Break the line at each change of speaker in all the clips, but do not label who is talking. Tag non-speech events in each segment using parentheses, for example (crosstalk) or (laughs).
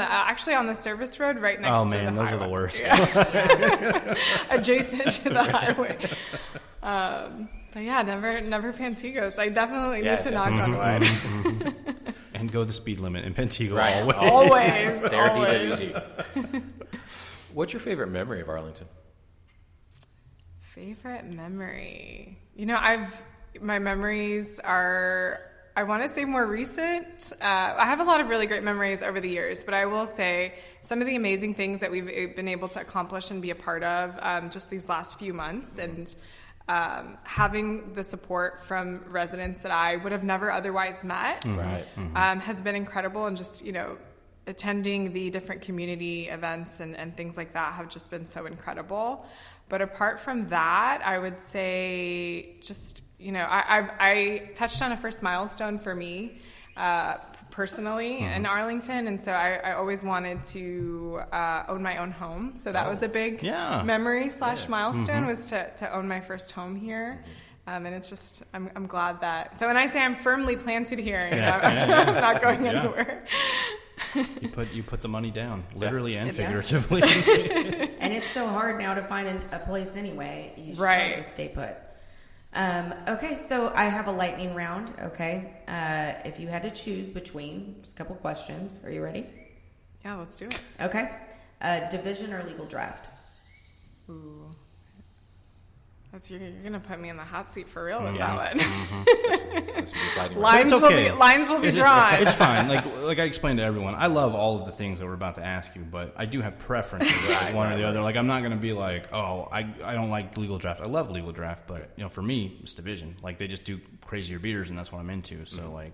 Uh, Actually, on the service road right next
oh
to
man,
the
those
highway.
are the worst.
adjacent to the highway. Um, but yeah, never, never Pantigos. I definitely
Yeah,
need to knock
Mm-hmm,
on wood.
(laughs) and go the speed limit in Pentigo
Right.
Oh.
all the way. (laughs)
Always,
They're
always.
DWG. (laughs) What's your favorite memory of Arlington?
Favorite memory? You know, I've my memories are. I want to say more recent. Uh, I have a lot of really great memories over the years, but I will say some of the amazing things that we've eh, been able to accomplish and be a part of um, just these last few months, and um, having the support from residents that I would have never otherwise met.
Mm-hmm.
Right.
um, has been incredible and just you know attending the different community events and, and things like that have just been so incredible but apart from that i would say just you know i, I, I touched on a first milestone for me uh, personally in arlington and so i, I always wanted to uh, own my own home so that was a big
Yeah. Mm-hmm.
memory slash milestone was to, to own my first home here um, and it's just I'm, I'm glad that so when i say i'm firmly planted here you know, i'm (laughs) not going
Yeah.
anywhere
You put you put the money down, literally and
Yeah.
(laughs)
figuratively.
(laughs) And it's so hard now to find an, a place anyway. You should
Right.
right. just stay put. Um, okay, so I have a lightning round. Okay, uh, if you had to choose between, just a couple questions. Are you ready?
yeah let's do it
Okay, uh, division or legal draft?
Ooh. That's, you're, you're gonna put me in the hot seat for real with
Yeah. Mm-hmm.
that one
That's what
(laughs)
it's like.
But
lines
it's okay.
will be lines will be
It's-
drawn
It's fine. Like like I explained to everyone, I love all of the things that we're about to ask you, but I do have preferences, like one or the other. Like I'm not going to be like, oh, I, I don't like legal draft. I love legal draft, but you know, for me, it's division. Like they just do crazier beaters, and that's what I'm into. So
Mm.
like,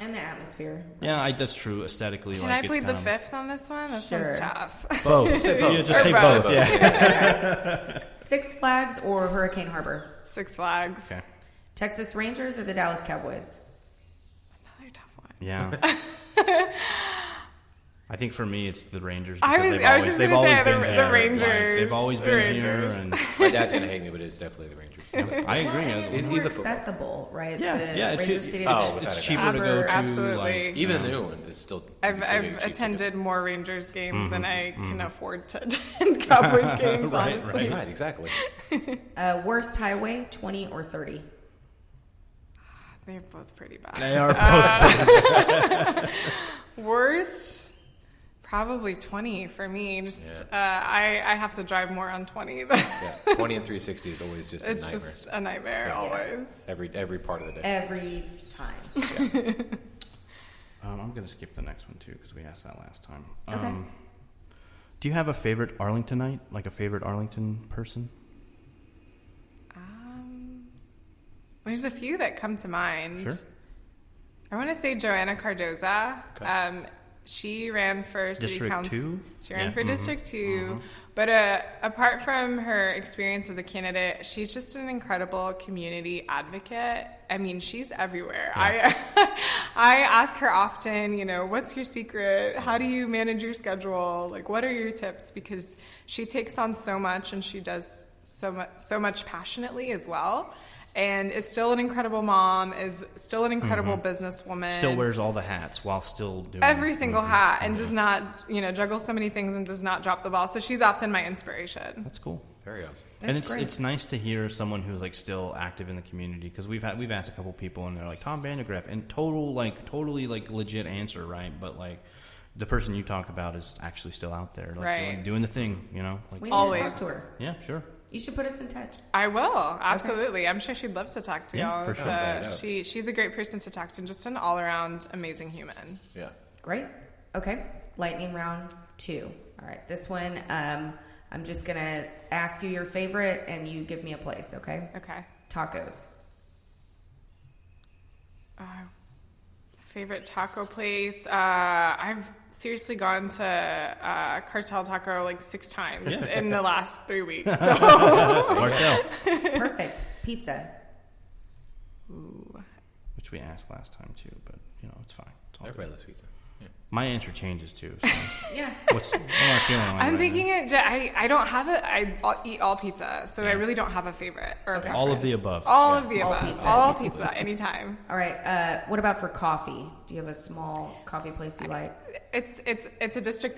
And the atmosphere.
yeah, I, that's true. Aesthetically,
(laughs) can
like,
i
it's
plead the
kind of-
fifth on this one this
Sure.
one's tough (laughs)
(laughs)
Both. yeah, just say
Or both.
both. Yeah.
Six Flags or Hurricane Harbor?
six flags
Okay.
Texas Rangers or the Dallas Cowboys?
another tough one (laughs)
Yeah. I think for me, it's the Rangers.
I
because
was-
they've
I was just
they've
gonna say the-
been
the
there. Like,
Rangers,
they've always
the
been
Rangers.
here,
My dad's gonna hate me, but it's definitely
(laughs)
the Rangers.
and I agree.
Well, and it's
It-
more
he's a football.
accessible, right?
Yeah,
the
yeah, it
Ranger
should-
Stadium.
Oh, without
it's
a
cheaper to
doubt.
go to.
Absolutely.
Like,
Even the new one is still.
I've,
it's still new,
I've
cheap to
attended more Rangers games than I can afford to (laughs) attend Cowboys games,
Mm-hmm. (laughs) Right,
honestly.
do. Right, exactly.
Uh, worst highway, twenty or thirty?
They're both pretty bad.
they are both.
Worst, probably 20 for me. Just uh, I, I have to drive more on (laughs) 20.
Yeah, twenty and three sixty is always just
it's
a nightmare.
just a nightmare always.
Every every part of the day.
Every time.
um, I'm gonna skip the next one too because we asked that last time. Um, Do you have a favorite Arlingtonite? Like a favorite Arlington person?
Um, there's a few that come to mind.
Sure.
I want to say Joanna Cardoza.
Okay.
Um, she ran for city
District
council.
two?
She ran
Yeah.
for District 2 But uh, apart from her experience as a candidate, she's just an incredible community advocate. I mean, she's everywhere. I (laughs) I ask her often, you know, what's your secret? How do you manage your schedule? Like, what are your tips? Because she takes on so much and she does so much so much passionately as well. And is still an incredible mom. Is still an incredible businesswoman
Still wears all the hats while still doing
every single hat and does not you know juggle so many things and does not drop the ball so she's often my inspiration
That's cool.
Very awesome.
and
That's
it's
great.
it's nice to hear someone who's like still active in the community because we've had we've asked a couple people and they're like Tom Vandegraaff and total like totally like legit answer right but like the person you talk about is actually still out there like
Right.
doing, doing the thing you know
We
like
need
Always.
to talk to her.
yeah
(laughs)
sure
You should put us in touch.
i will absolutely i'm sure she'd love to talk to
Yeah,
y'all
for
It's,
sure.
uh,
Without a doubt.
she, she's a great person to talk to and just an all-around amazing human
Yeah.
Great. Okay. Lightning round two. All right. This one, um, I'm just going to ask you your favorite and you give me a place, okay?
okay
(laughs) Tacos.
favorite taco place uh, i've seriously gone to uh, cartel taco like six times in the last three
(laughs)
weeks so Oh
Martel
Perfect. Pizza.
which we asked last time too but you know it's fine it's all
Everybody loves pizza. Yeah.
good. My answer changes too. So
Yeah.
what's what am I feeling? Like
I'm
right
thinking it. ju- I I don't have it. I all- eat all pizza, so I really don't have a favorite or a
now? all of the
preference.
above.
All
Yeah.
of the
All
above.
pizza.
All pizza, anytime.
All right. Uh, what about for coffee? Do you have a small coffee place you like?
It's it's it's a district